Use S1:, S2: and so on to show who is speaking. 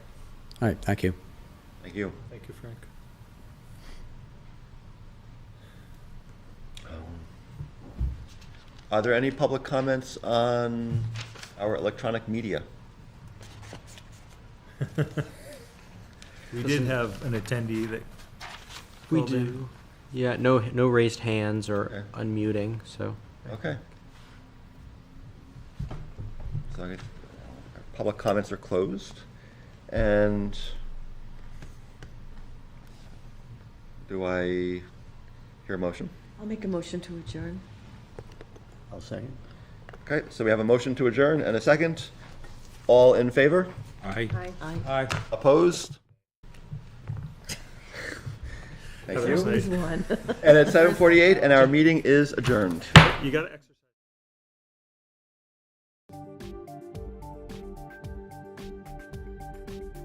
S1: All right, thank you.
S2: Thank you.
S3: Thank you, Frank.
S2: Um, Are there any public comments on our electronic media?
S3: We did have an attendee that
S4: We
S3: called in.
S4: do. Yeah, no, no raised hands or
S2: Okay.
S4: unmuting, so.
S2: Okay. So I get- uh, public comments are closed and do I hear a motion?
S5: I'll make a motion to adjourn.
S6: I'll second.
S2: Okay, so we have a motion to adjourn and a second. All in favor?
S1: Aye.
S5: Aye.
S3: Aye.
S2: Opposed? Thank
S3: Have a
S2: you.
S3: nice night.
S5: One.
S2: And it's 7:48 and our meeting is adjourned.
S3: You gotta exercise.